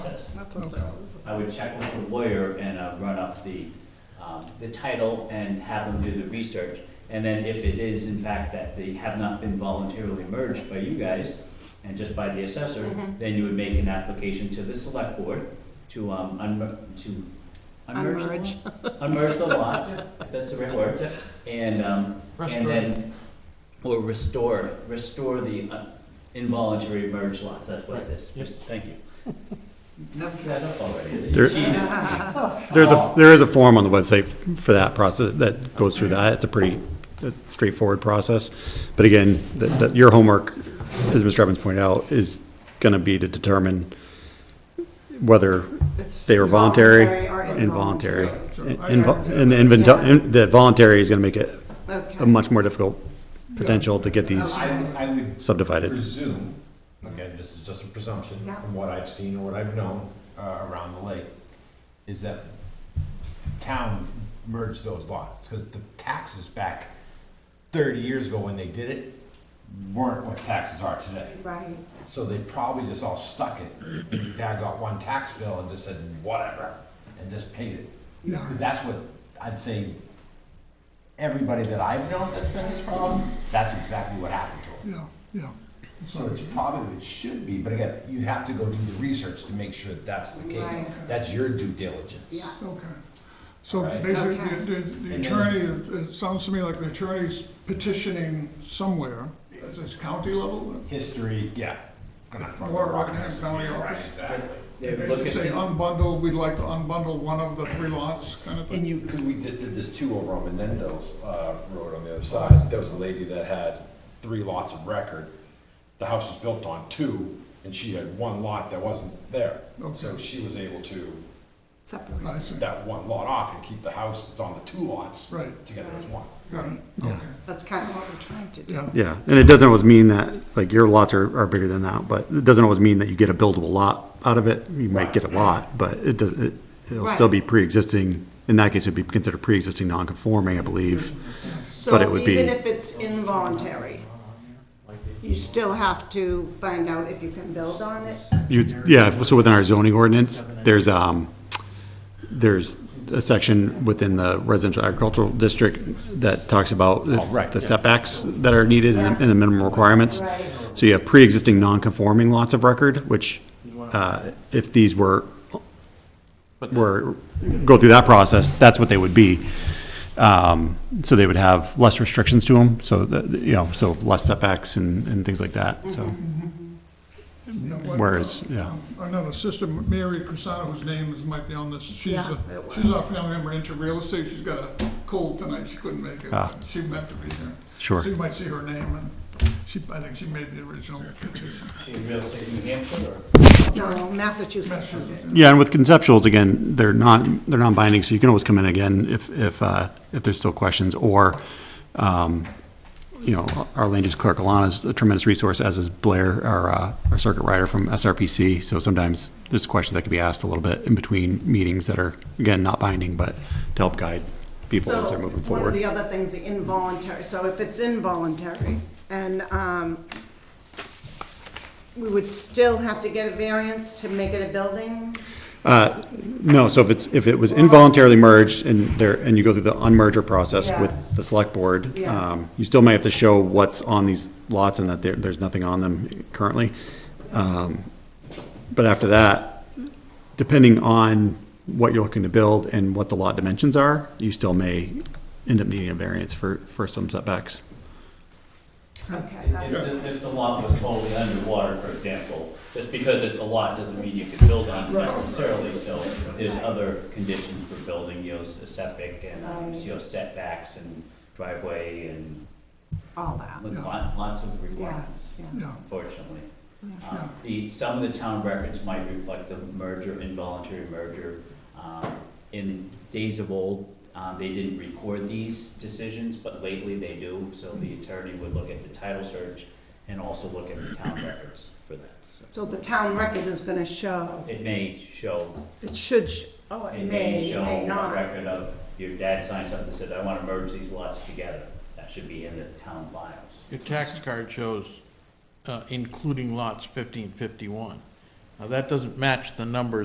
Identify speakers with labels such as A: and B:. A: I would check with the lawyer and uh, run up the, um, the title and have them do the research. And then if it is in fact that they have not been voluntarily merged by you guys and just by the assessor,
B: Mhm.
A: then you would make an application to the select board to, um, unmer, to unmerge,
B: Unmerge.
A: unmerge the lots, if that's the right word. And, um, and then, or restore, restore the uh, involuntary merged lots, that's what it is.
C: Yes.
A: Thank you. Knocked that up already.
D: There-
A: Cheated.
D: There's a, there is a form on the website for that process, that goes through that. It's a pretty straightforward process. But again, that, that your homework, as Mr. Evans pointed out, is gonna be to determine whether they were voluntary,
B: or
D: involuntary.
E: Sure.
D: Invo- And the invento- in- the voluntary is gonna make it a
B: Okay.
D: much more difficult potential to get these
C: I, I would
D: subdivided.
C: presume, again, this is just a presumption
B: Yeah.
C: from what I've seen or what I've known uh, around the lake, is that town merged those lots, because the taxes back thirty years ago when they did it weren't what taxes are today.
B: Right.
C: So they probably just all stuck it. And Dad got one tax bill and just said, whatever, and just paid it.
E: Yeah.
C: That's what I'd say, everybody that I've known that's been this problem, that's exactly what happened to them.
E: Yeah, yeah.
C: So it's probably what it should be, but again, you have to go do the research to make sure that that's the case.
B: Right.
C: That's your due diligence.
B: Yeah.
E: Okay. So
C: Right.
E: basically,
B: Okay.
E: the- the the attorney, it sounds to me like the attorney's petitioning somewhere, at this county level,
C: History, yeah. Gonna throw
E: Or
C: a rock in
E: Rockingham
C: this.
E: County
C: Right,
E: office.
C: Exactly.
A: They would look
E: basically
A: at
E: say "Oh."
A: the-
E: unbundle, we'd like to unbundle one of the three lots, kind of
C: And
E: thing.
C: you, because we just did this too over on Menendez uh, Road on the other side. There was a lady that had three lots of record. The house was built on two, and she had one lot that wasn't there. So
E: Okay.
C: she was able to
E: I
B: Separate.
E: see,
C: put that one lot off and keep the house that's on the two lots
E: Right.
C: together as one.
E: got it, okay,
B: That's kind of what we're trying to do.
E: yeah.
D: Yeah, and it doesn't always mean that, like, your lots are, are bigger than that, but it doesn't always mean that you get a buildable lot out of it. You might get a lot, but it does, it, it'll still be pre-existing, in that case, it'd be considered pre-existing non-conforming, I believe. But it would be-
B: So even if it's involuntary, you still have to find out if you can build on it.
D: You'd, yeah, so within our zoning ordinance, there's, um, there's a section within the residential agricultural district that talks about the-
C: Oh, right,
D: the
C: yeah.
D: setbacks that are needed and the- and the minimum requirements.
B: Right.
D: So you have pre-existing non-conforming lots of record, which, uh, if these were, were, go through that process, that's what they would be. Um, so they would have less restrictions to them, so, that- you know, so less setbacks and, and things like that, so.
E: Yeah, what-
D: Whereas, yeah.
E: Another sister, Mary Crisano, whose name is, might be on this, she's,
B: Yeah,
E: a-
B: it was.
E: she's our family member into real estate, she's got a cold tonight, she couldn't make it,
D: Ah.
E: she meant to be here.
D: Sure.
E: So you might see her name, and she, I think she made the original petition.
A: See, real estate New Hampshire or?
B: No, Massachusetts.
D: Yeah, and with conceptuals, again, they're not, they're non-binding, so you can always come in again if, if, uh, if there's still questions, or, um, you know, our land use clerk, Alana's a tremendous resource, as is Blair, our, uh, our circuit rider from SRPC, so sometimes there's questions that can be asked a little bit in between meetings that are, again, not binding, but to help guide people as they're moving
B: So one of the
D: forward.
B: other things, the involuntary, so if it's involuntary, and um, we would still have to get a variance to make it a building?
D: No, so if it's, if it was involuntarily merged and there, and you go through the unmerger process
B: Yes.
D: with the select board, um,
B: Yes.
D: you still may have to show what's on these lots and that there, there's nothing on them currently. Um, But after that, depending on what you're looking to build and what the lot dimensions are, you still may end up needing a variance for, for some setbacks.
B: Okay,
A: If,
B: that's,
A: the- if the lot was totally underwater, for example, just because it's a lot doesn't mean you can build on it necessarily, so there's other conditions for building, you know, s- septic and, um, you know, setbacks and driveway and
B: all that,
A: with lot- lots of
B: yeah,
A: requirements,
B: yeah.
E: Yeah,
A: unfortunately.
B: Yeah.
A: Um, The, some of the town records might reflect the merger, involuntary merger. Um, In days of old, um, they didn't record these decisions, but lately they do, so the attorney would look at the title search and also look at the town records for that. So
B: So the town record is gonna show,
A: It may show,
B: it should, sh- oh, it
A: it
B: may,
A: may
B: it
A: show
B: may
A: a
B: not.
A: record of your dad signed something that said, I want to merge these lots together. That should be in the town files.
F: Your tax card shows uh, including lots 1551. Now, that doesn't match the number